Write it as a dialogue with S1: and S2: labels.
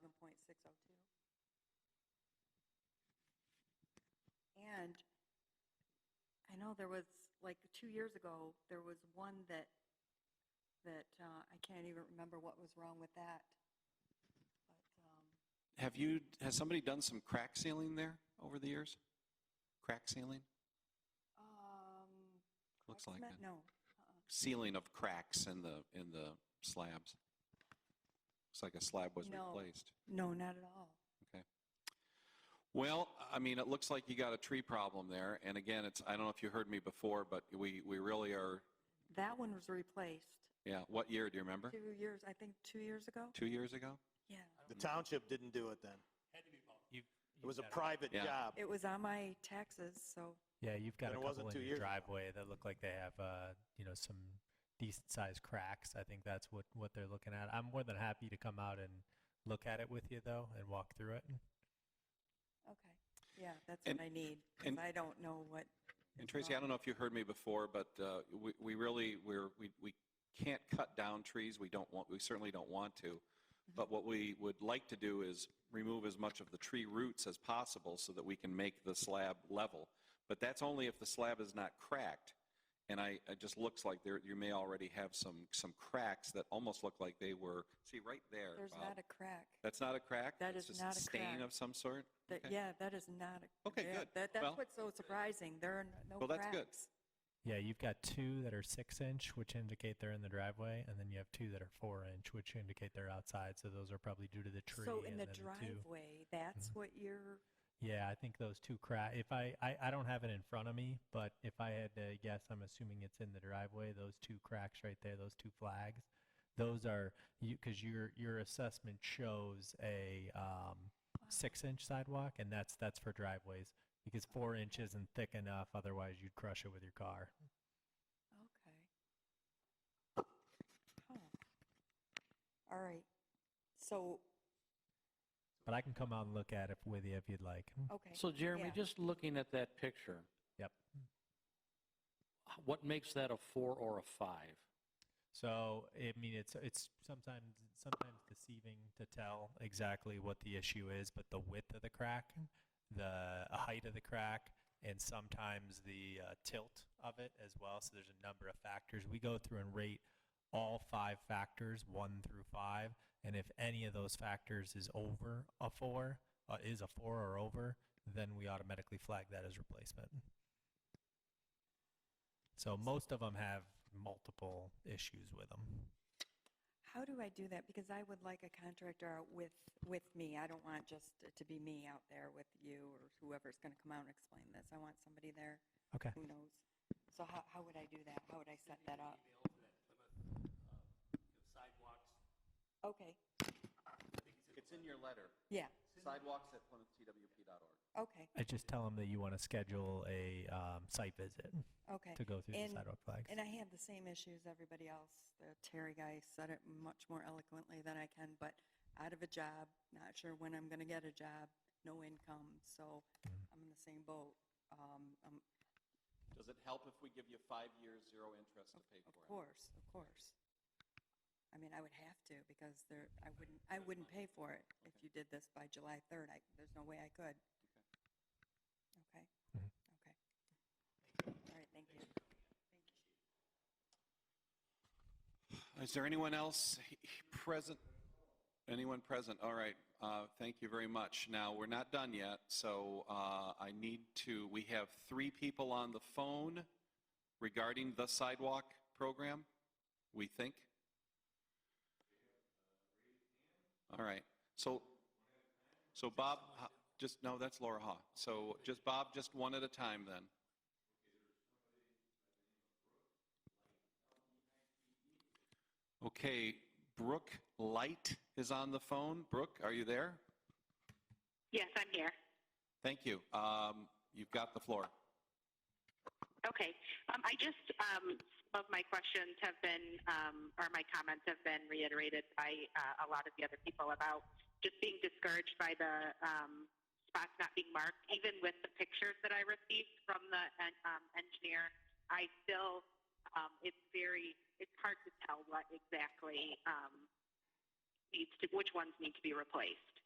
S1: oh No, there was, like, two years ago, there was one that, that uh, I can't even remember what was wrong with that. But, um,
S2: Have you, has somebody done some crack sealing there over the years? Crack sealing?
S1: Um.
S2: Looks like
S1: Craftsman?
S2: it.
S1: No. uh-uh,
S2: Sealing of cracks in the, in the slabs? Looks like a slab was
S1: No.
S2: replaced.
S1: No, not at all.
S2: Well, I mean, it looks like you got a tree problem there. And again, it's, I don't know if you heard me before, but we, we really are,
S1: That one was replaced
S2: yeah, what year, do you remember?
S1: two years, I think, two years ago?
S2: Two years ago?
S1: Yeah.
S3: The township didn't do it then.
S4: You've-
S3: It
S4: you've
S3: was a
S4: got
S3: private
S2: Yeah.
S3: job.
S1: It was on my taxes, so,
S4: Yeah, you've got
S3: and
S4: a
S3: it wasn't
S4: couple in
S3: two
S4: your
S3: years ago.
S4: driveway that look like they have, uh, you know, some decent sized cracks. I think that's what, what they're looking at. I'm more than happy to come out and look at it with you though and walk through it.
S1: okay. Yeah, that's
S2: And-
S1: what I need, because
S2: and-
S1: I don't know what.
S2: And
S1: is
S2: Tracy, I
S1: wrong.
S2: don't know if you heard me before, but uh, we- we really, we're, we we can't cut down trees. We don't want, we certainly don't want to.
S1: Mm-hmm.
S2: But what we would like to do is remove as much of the tree roots as possible so that we can make the slab level. But that's only if the slab is not cracked. And I, it just looks like there, you may already have some, some cracks that almost look like they were, see, right there,
S1: There's
S2: Bob.
S1: not a crack.
S2: That's not a crack?
S1: That
S2: That's
S1: is
S2: just
S1: not a
S2: Stain
S1: crack.
S2: of some sort?
S1: That,
S2: Okay.
S1: yeah, that is not a.
S2: Okay,
S1: yeah,
S2: good.
S1: That,
S2: Well-
S1: that's what's so surprising. There are n- no
S2: Well, that's
S1: cracks.
S2: good.
S4: Yeah, you've got two that are six inch, which indicate they're in the driveway, and then you have two that are four inch, which indicate they're outside. So those are probably due to the tree.
S1: So in
S4: and
S1: the
S4: then two- Mm-hmm.
S1: driveway, that's what you're,
S4: Yeah, I think those two crack. If I, I, I don't have it in front of me, but if I had to guess, I'm assuming it's in the driveway. Those two cracks right there, those two flags, those are you because your your assessment shows a um,
S1: uh,
S4: six inch sidewalk, and that's that's for driveways because four inch isn't thick enough. Otherwise, you'd crush it with your car.
S1: okay. Huh. Oh. All right. So,
S4: But I can come out and look at it with you if you'd like.
S1: okay.
S5: So Jeremy,
S1: yeah.
S5: just looking at that picture,
S4: Yep.
S5: what makes that a four or a five?
S4: So I mean, it's it's sometimes sometimes deceiving to tell exactly what the issue is, but the width of the crack, the height of the crack, and sometimes the uh, tilt of it as well. So there's a number of factors we go through and rate all five factors, one through five, and if any of those factors is over a four, uh, is a four or over, then we automatically flag that as replacement. So most of them have multiple issues with them.
S1: How do I do that? Because I would like a contractor out with, with me. I don't want just it to be me out there with you or whoever's going to come out and explain this. I want somebody there
S4: Okay.
S1: who knows. So how, how would I do that? How would I set that up?
S6: uh,
S1: Okay,
S6: It's in your letter,
S1: yeah,
S6: sidewalks at sidewalks@plymouthtwp.org.
S1: okay,
S4: I just tell them that you want to schedule a um, site visit
S1: okay.
S4: to go through
S1: And-
S4: the sidewalk flags.
S1: And I had the same issues everybody else. The Terry guy said it much more eloquently than I can, but out of a job, not sure when I'm going to get a job, no income, so I'm in the same boat. Um, um,
S2: Does it help if we give you five years, zero interest to pay
S1: Of course, of course. I mean, I would have to because there, I wouldn't, I wouldn't pay for it if you did this by July 3rd. I, there's no way I could. Okay?
S4: Mhm.
S1: Okay. All right, thank you.
S2: Is there anyone else he- he- present? Anyone present? All right, uh, thank you very much. Now, we're not done yet, so uh, I need to, we have three people on the phone regarding the sidewalk program, we think. All right, so, so Bob, uh, just, no, that's Laura Haw. So just, Bob, just one at a time then. Okay, Brooke Light is on the phone. Brooke, are you there?
S7: Yes, I'm here.
S2: Thank you. Um, You've got the floor.
S7: Okay. Um, I just, um, some of my questions have been, um, or my comments have been reiterated by uh, a lot of the other people about just being discouraged by the um, spots not being marked. Even with the pictures that I received from the en- um, engineer, I still, um, it's very, it's hard to tell what exactly um, needs to, which ones need to be replaced.